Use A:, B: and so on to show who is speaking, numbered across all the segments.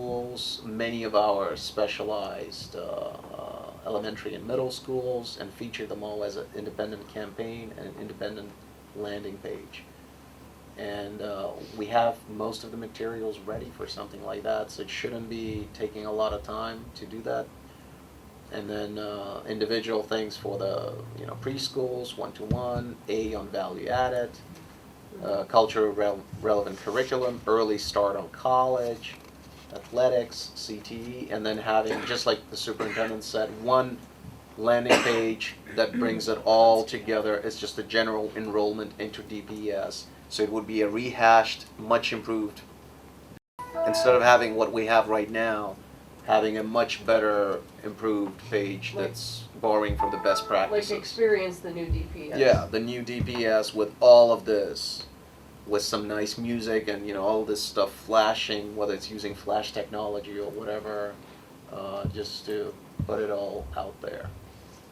A: schools, many of our specialized uh, uh, elementary and middle schools, and feature them all as an independent campaign and an independent landing page. And uh, we have most of the materials ready for something like that, so it shouldn't be taking a lot of time to do that. And then uh, individual things for the you know preschools, one to one, A on value added, uh, cultural rel- relevant curriculum, early start on college, athletics, CTE, and then having just like the superintendent said, one landing page that brings it all together. It's just a general enrollment into DPS, so it would be a rehashed, much improved instead of having what we have right now, having a much better improved page
B: Like-
A: that's borrowing from the best
B: Like
A: practices.
B: experience the new DPS.
A: Yeah, the new DPS with all of this, with some nice music and you know all this stuff flashing, whether it's using flash technology or whatever, uh, just to put it all out there.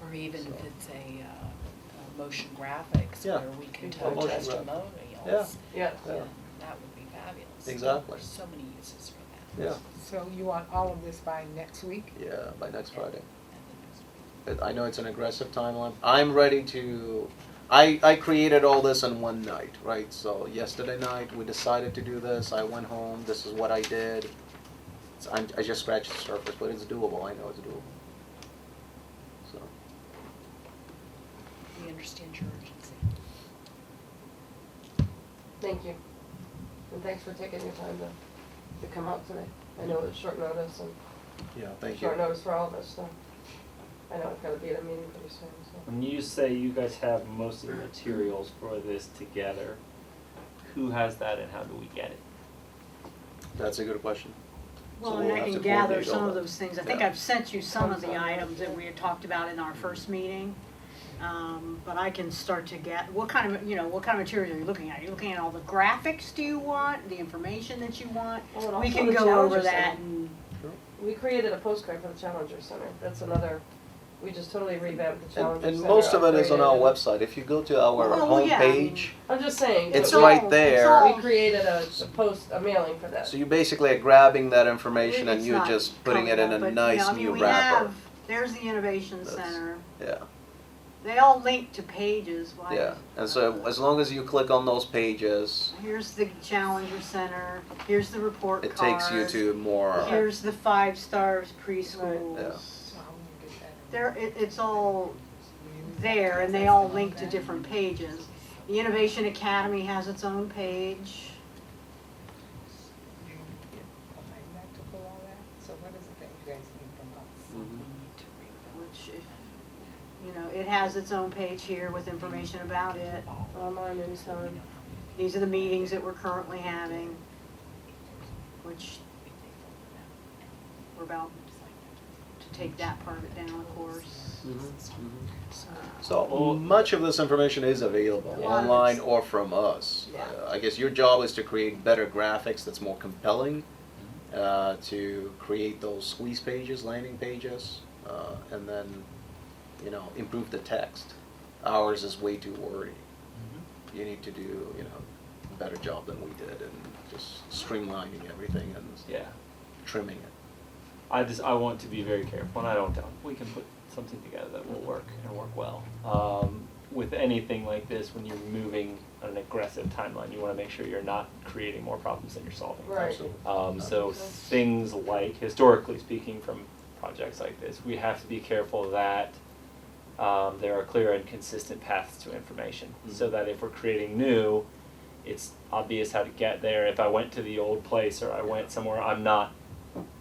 C: Or even
A: So.
C: if it's a, uh, a motion graphics
A: Yeah.
C: where we can
B: Yeah,
C: tell
A: motion graphic.
C: testimonials.
A: Yeah.
B: Yeah.
A: Yeah.
C: That would be fabulous.
A: Exactly.
C: So many uses for that.
A: Yeah,
D: So you want all of this by next week?
A: yeah. By next Friday,
C: And then it's-
A: But I know it's an aggressive timeline. I'm ready to. I, I created all this in one night, right? So yesterday night we decided to do this. I went home. This is what I did. It's, I'm, I just scratched the surface, but it's doable. I know it's doable. So.
C: We understand your urgency.
B: Thank you. And thanks for taking your time to, to come out today. I know it's short notice and
A: Yeah, thank you.
B: short notice for all of us, so I know I've gotta be at a meeting pretty soon, so.
E: When you say you guys have most of the materials for this together, who has that and how do we get it?
A: That's a good question. So
F: Well, and
A: we'll
F: I
A: have to
F: can gather
A: coordinate all
F: some of
A: that.
F: those things. I think
A: Yeah.
F: I've sent you some of the
B: Okay.
F: items that we had talked about in our first meeting. Um, But I can start to get, what kind of, you know, what kind of material are you looking at? Are you looking at all the graphics do you want, the information that you want?
B: Well, and
F: We
B: also
F: can
B: the
F: go
B: Challenger
F: over that
B: Center.
F: and,
A: Mm-hmm.
B: We created a postcard for the Challenger Center. That's another, we just totally revamped the
A: And,
B: Challenger
A: and
B: Center.
A: most of it is on our
B: upgraded it.
A: website. If you go to our
F: Oh, yeah, I mean-
A: homepage,
B: I'm just saying.
A: it's
B: that we-
A: right
F: all-
A: there.
F: it's
B: We created a, a post, a mailing for that.
A: so you basically are grabbing that information and
F: it's
A: you're
F: not
A: just putting it in
F: coming
A: a
F: up, but, you
A: nice
F: know, I
A: new
F: mean, we
A: wrapper.
F: have, there's the Innovation
A: That's-
F: Center.
A: Yeah,
F: They all link to pages, why?
A: yeah. And so as long as you click on those pages,
F: Here's the Challenger Center, here's the report
A: it takes you
F: cards.
A: to more.
F: Here's the five stars preschools.
A: Yeah.
D: So how will you get that?
F: There, it, it's all there and they all link to different pages. The Innovation Academy has its own page.
D: Like to pull all that? So what is it that you guys need from us?
C: We
A: Mm-hmm.
C: need to read
F: Which, if- you know, it has its own page here with information about it.
B: Online anytime.
F: These are the meetings that we're currently having, which we're about to take that part of it down, of course.
A: Mm-hmm. So
E: Well-
A: much of this information is available
F: Yeah.
A: online or from us.
F: Yeah.
A: Uh, I guess your job is to create better graphics that's more compelling, uh, to create those squeeze pages, landing pages, uh, and then, you know, improve the text. Ours is way too wordy. You need to do, you know, a better job than we did and just streamlining everything and
E: Yeah,
A: trimming it.
E: I just, I want to be very careful and I don't doubt we can put something together that will work and work well. Um, with anything like this, when you're moving on an aggressive timeline, you wanna make sure you're not creating more problems than you're solving.
B: Right.
A: Absolutely.
E: Um, so things like, historically speaking, from projects like this, we have to be careful that um, there are clear and consistent paths to information. So that if we're creating new, it's obvious how to get there. If I went to the old place or I went somewhere, I'm not.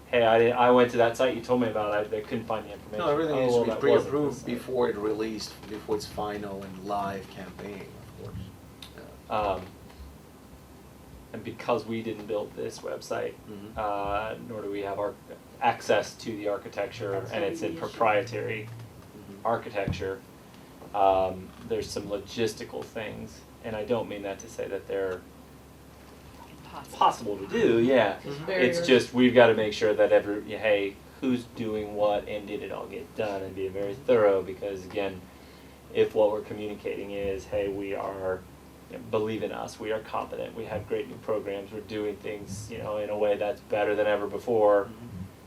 E: Hey, I didn't, I went to that site you told me about. I they couldn't find the information.
A: No, everything
E: Oh,
A: needs to be
E: well, that wasn't the
A: pre-approved
E: site.
A: before it released, before its final and live campaign, of course. Yeah.
E: Um, and because we didn't build this website,
A: Mhm.
E: uh, nor do we have our access to the architecture,
F: That's
E: and
F: gonna
E: it's
F: be
E: in
F: the issue.
E: proprietary Mm-hmm.
A: Mhm.
E: architecture, um, there's some logistical things, and I don't mean that to say that they're
C: that. Impossible.
E: possible to do, yeah. It's just, we've gotta make sure that every, yeah, hey, who's doing what and did it all get done and be very thorough, because again, if what we're communicating is, hey, we are you know, believe in us. We are competent. We have great new programs. We're doing things, you know, in a way that's better than ever before.
A: Mhm.